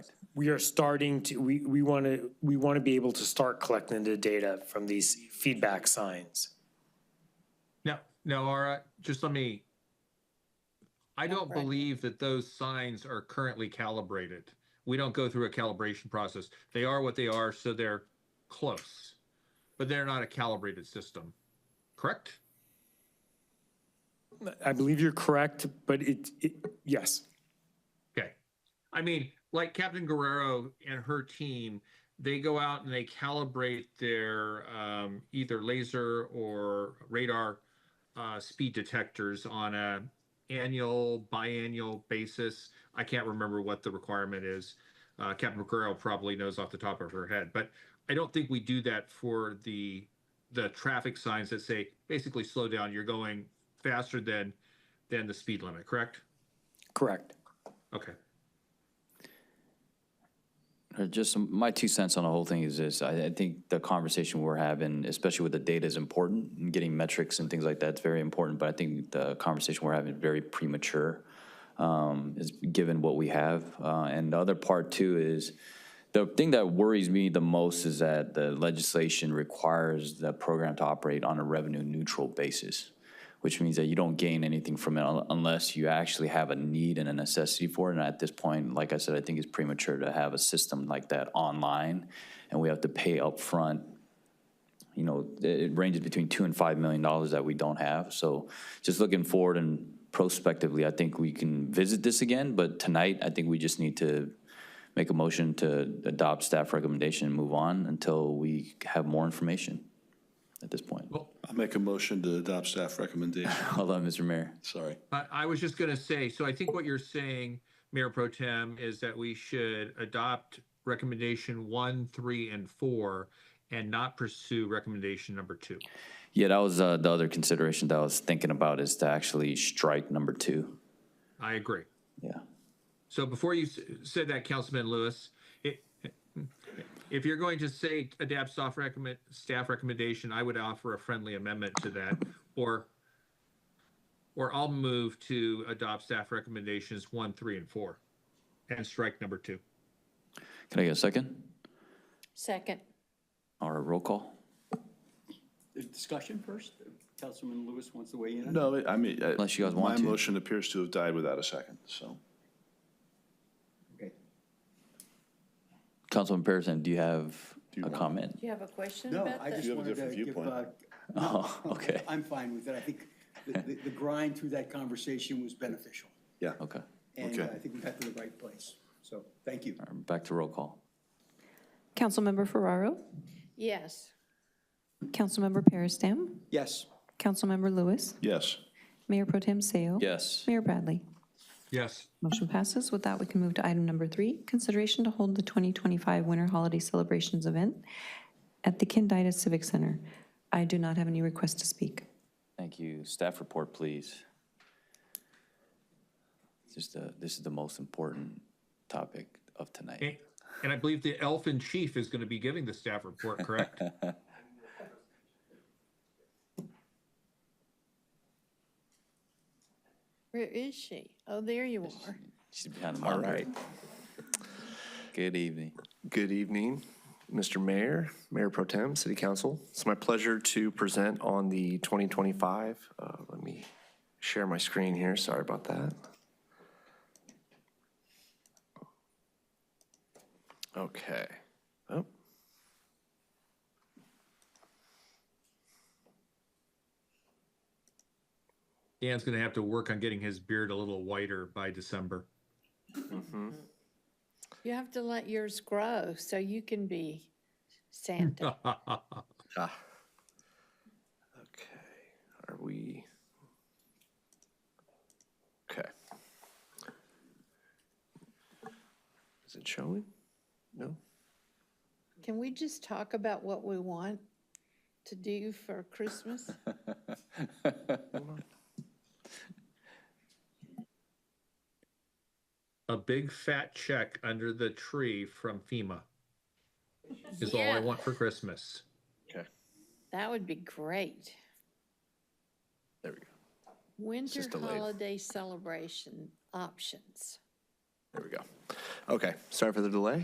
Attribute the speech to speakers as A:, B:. A: we are starting to, we, we want to, we want to be able to start collecting the data from these feedback signs.
B: No, no, Laura, just let me. I don't
C: Right.
B: believe that those signs are currently calibrated. We don't go through a calibration process. They are what they are, so they're close, but they're not a calibrated system, correct?
A: I believe you're correct, but it, it, yes.
B: Okay. I mean, like Captain Guerrero and her team, they go out and they calibrate their um, either laser or radar uh, speed detectors on a annual, biannual basis. I can't remember what the requirement is. Uh, Captain Guerrero probably knows off the top of her head, but I don't think we do that for the the traffic signs that say basically slow down. You're going faster than than the speed limit, correct?
A: Correct.
B: Okay.
D: Uh, Just some- my two cents on the whole thing is this, I, I think the conversation we're having, especially with the data is important, and getting metrics and things like that is very important, but I think the conversation we're having is very premature, um, is given what we have. Uh, and the other part too is, the thing that worries me the most is that the legislation requires the program to operate on a revenue neutral basis, which means that you don't gain anything from it un- unless you actually have a need and a necessity for it. And at this point, like I said, I think it's premature to have a system like that online, and we have to pay upfront you know, it it ranges between two and five million dollars that we don't have. So just looking forward and prospectively, I think we can visit this again, but tonight, I think we just need to make a motion to adopt staff recommendation and move on until we have more information at this point.
E: I'll make a motion to adopt staff recommendation.
D: Hold on, Mr. Mayor.
E: Sorry.
B: I, I was just gonna say, so I think what you're saying, Mayor Pro Tem, is that we should adopt recommendation one, three, and four and not pursue recommendation number two.
D: Yeah, that was uh, the other consideration that I was thinking about is to actually strike number two.
B: I agree.
D: Yeah.
B: So before you s- said that, Councilman Lewis, it, if you're going to say adapt staff recommend, staff recommendation, I would offer a friendly amendment to that or or I'll move to adopt staff recommendations one, three, and four and strike number two.
D: Can I get a second?
C: Second.
D: All right, roll call.
F: There's discussion first? Councilman Lewis wants to weigh in? on it?
E: No, I mean. I-
D: Unless you guys want to.
E: My motion appears to have died without a second, so.
F: Okay.
D: Councilman Pearson, do you have a comment?
C: Do you have a question
F: No,
C: about
F: I
C: that?
F: just
E: You have a
F: wanted to
E: different
F: give,
E: viewpoint.
F: uh,
D: Oh, okay,
F: I'm fine with it. I think the, the the grind through that conversation was beneficial.
E: Yeah.
D: okay.
F: And
E: Okay.
F: uh, I think we got to the right place. So, thank you.
D: All right, Back to roll call.
G: Councilmember Ferraro,
C: Yes.
G: Councilmember Peristam,
F: Yes.
G: Councilmember Lewis,
E: Yes.
G: Mayor Pro Tem Seo.
D: Yes.
G: Mayor Bradley.
B: Yes.
G: Motion passes. With that, we can move to item number three, consideration to hold the 2025 Winter Holiday Celebrations Event at the Kindida Civic Center. I do not have any requests to speak.
D: Thank you. Staff report, please. Just, uh, this is the most important topic of tonight.
B: Okay. And I believe the elf in chief is going to be giving the staff report, correct?
C: Where is she? Oh, there you are.
D: She's behind the
H: All
D: monitor.
H: right.
D: Good evening.
H: Good evening, Mr. Mayor, Mayor Pro Tem, City Council. It's my pleasure to present on the 2025, uh, let me share my screen here, sorry about that. Okay. Oh.
B: Dan's going to have to work on getting his beard a little whiter by December.
C: You have to let yours grow so you can be Santa.
H: Ah. Okay, are we? Okay. Is it showing? No?
C: Can we just talk about what we want to do for Christmas?
B: A big fat check under the tree from FEMA is all I
C: Yeah.
B: want for Christmas.
H: Okay,
C: That would be great.
H: there we go.
C: Winter
H: just delayed.
C: holiday celebration options.
H: There we go. Okay, sorry for the delay.